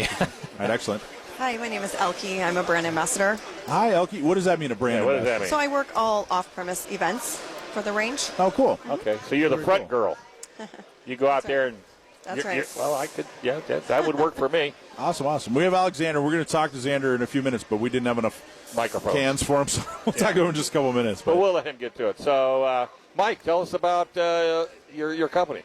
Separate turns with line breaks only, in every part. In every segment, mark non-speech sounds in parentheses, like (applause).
(laughs)
All right, excellent.
Hi, my name is Elke. I'm a brand ambassador.
Hi, Elke. What does that mean, a brand?
Yeah, what does that mean?
So I work all off-premise events for the range.
Oh, cool.
Okay, so you're the
Very
front girl.
(laughs)
You go out there and.
That's
you're-
right.
you're- Well, I could, yeah, that, that would work for me.
Awesome, awesome. We have Alexander. We're going to talk to Xander in a few minutes, but we didn't have enough
Microphones.
cans for him, so (laughs) we'll talk to him in just a couple minutes.
But
But
we'll let him get to it. So, uh, Mike, tell us about uh, your, your company.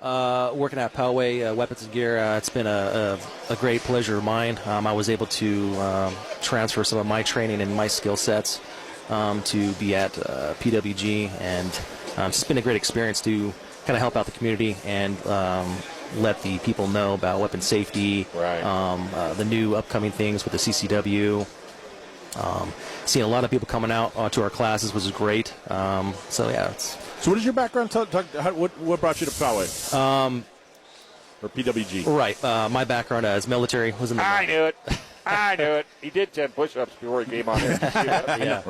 Uh, working at Poway uh, Weapons and Gear, uh, it's been a, a, a great pleasure of mine. Um, I was able to um, transfer some of my training and my skill sets um, to be at uh, PWG, and um, it's been a great experience to kind of help out the community and um, let the people know about weapon safety,
Right.
um, uh, the new upcoming things with the CCW. Um, seeing a lot of people coming out uh, to our classes was great. Um, so yeah, it's
so, what is your background? Tell, talk, how, what what brought you to Poway? Um, or PWG?
right. Uh, my background uh, is military. Was in the
I knew it. I knew it. (laughs) He did 10 push ups before he came on (laughs) here.
yeah.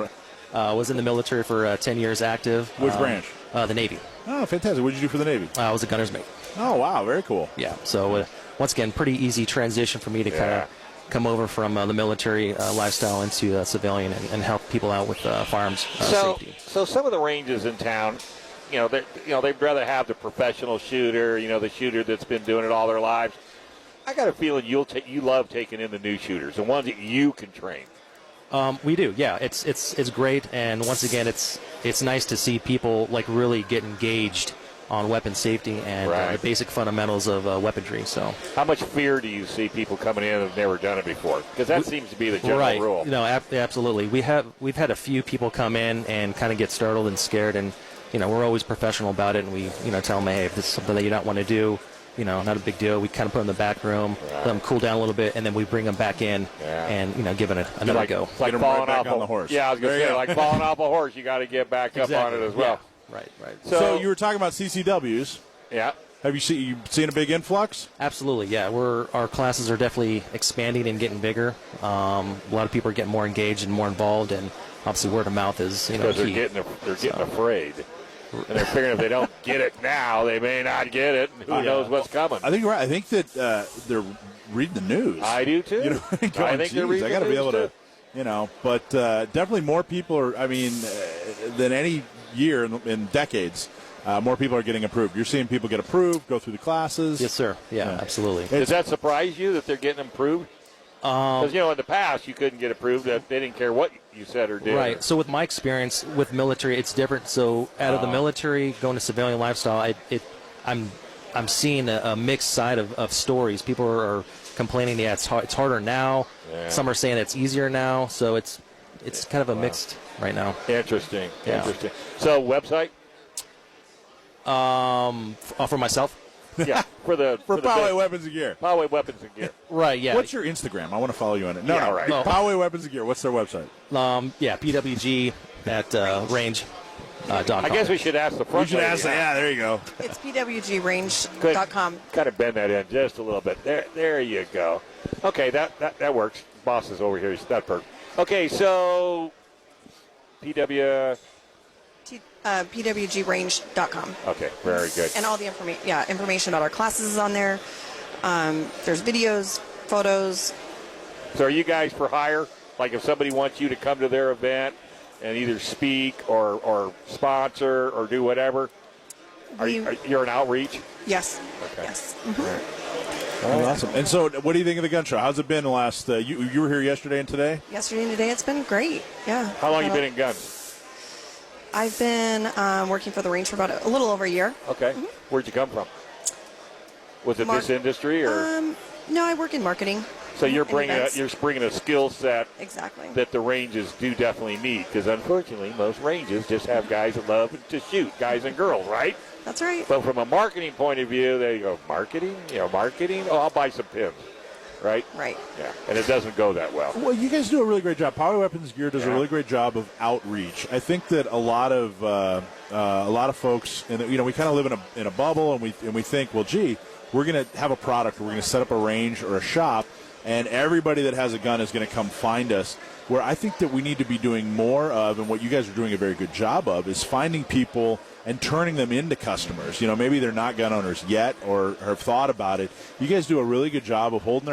Uh, was in the military for uh, 10 years active.
Which
Um,
branch?
Uh, the Navy.
Oh, fantastic! What did you do for the Navy?
Uh, I was a gunner's mate.
Oh, wow, very cool.
Yeah. So, uh, once again, pretty easy transition for me to kind
Yeah.
of come over from uh, the military uh, lifestyle into uh, civilian and, and help people out with uh, firearms uh,
so,
safety.
so some of the ranges in town, you know, they you know they'd rather have the professional shooter, you know, the shooter that's been doing it all their lives. I got a feeling you'll ta- you love taking in the new shooters, the ones that you can train.
Um, we do, yeah. It's it's it's great, and once again, it's it's nice to see people like really get engaged on weapon safety and uh,
Right.
the basic fundamentals of uh, weaponry. So,
How much fear do you see people coming in that've never done it before? Because that seems to be the general
right.
rule.
No, ab- absolutely. We have we've had a few people come in and kind of get startled and scared, and you know we're always professional about it, and we you know tell them, hey, if this is something that you don't want to do, you know, not a big deal. We kind of put them in the back room, let them cool down a little bit, and then we bring them back in
Yeah.
and you know give it a, another
like,
go.
It's like
Get 'em right
falling
back
off
on
a
the horse.
Yeah, I was
There
gonna
you
say
go.
like falling off a horse, you got to get back up on it as well.
Yeah. Right. Right.
So,
So-
you were talking about CCWs.
Yeah.
Have you seen you seen a big influx?
Absolutely, yeah. We're our classes are definitely expanding and getting bigger. Um, a lot of people are getting more engaged and more involved, and obviously word of mouth is you know
because they're
key.
getting they're getting afraid, and they're figuring if they don't get it now, they may not get it. and Who knows what's coming?
I think you're right. I think that uh, they're reading the news.
I do too.
You know, (laughs) going,
I think
"Geez,
they're reading
I got to
the
be
news
able to,
too."
you know, but uh, definitely more people are. I mean, uh, than any year in, in decades, uh, more people are getting approved. You're seeing people get approved, go through the classes.
Yes, sir. Yeah, absolutely.
Does that surprise you that they're getting approved?
Um,
Because you know in the past you couldn't get approved. That they didn't care what you said or did.
Right. So with my experience with military, it's different. So out of the military, going to civilian lifestyle, I, it, I'm, I'm seeing a, a mixed side of, of stories. People are, are complaining, yeah, it's hard, it's harder now.
Yeah.
Some are saying it's easier now. So it's, it's kind of a mixed right now.
Interesting.
Yeah.
Interesting. So website.
F- uh, for myself.
Yeah. For the
for
the
Poway
big-
Weapons and Gear.
Poway weapons and gear.
Right. Yeah.
What's your Instagram? I want to follow you on it. No,
Yeah,
no,
right.
No.
Poway Weapons and Gear. What's their website?
um, yeah. PWG at uh, range. Uh, dot
I
com.
guess we should ask the front.
You should
lady
ask.
now.
that. Yeah, there you go.
It's
Good.
pwgrange.com.
Kind of bend that in just a little bit. There, there you go. Okay, that that, that works. Boss is over here. He's not perfect. Okay, so PW.
T- uh, pwgrange.com.
Okay, very good.
And all the information, yeah, information about our classes is on there. Um, there's videos, photos.
So, are you guys for hire? Like, if somebody wants you to come to their event and either speak or or sponsor or do whatever, are you
We-
are, you're an outreach?
Yes.
Okay.
Yes.
Awesome. And so, what do you think of the gun show? How's it been the last? Uh, you you were here yesterday and today.
Yesterday and today, it's been great. Yeah.
How long you
About-
been in guns?
I've been um, working for the range for about a, a little over a year.
Okay, where'd you come from? Was it
Mar-
this industry or?
Um, no, I work in marketing.
so you're
and
bringing a,
events.
you're bringing a skill set
exactly.
that the ranges do definitely need because unfortunately most ranges just have guys that love to shoot guys and girls right
That's right.
but from a marketing point of view they go marketing you know marketing oh i'll buy some pins right
right.
yeah and it doesn't go that well
Well, you guys do a really great job. Power Weapons Gear does a
Yeah.
really great job of outreach. I think that a lot of uh, uh, a lot of folks, and you know, we kind of live in a in a bubble, and we and we think, well, gee, we're going to have a product, we're going to set up a range or a shop, and everybody that has a gun is going to come find us. Where I think that we need to be doing more of, and what you guys are doing a very good job of, is finding people and turning them into customers. You know, maybe they're not gun owners yet or have thought about it. You guys do a really good job of holding. their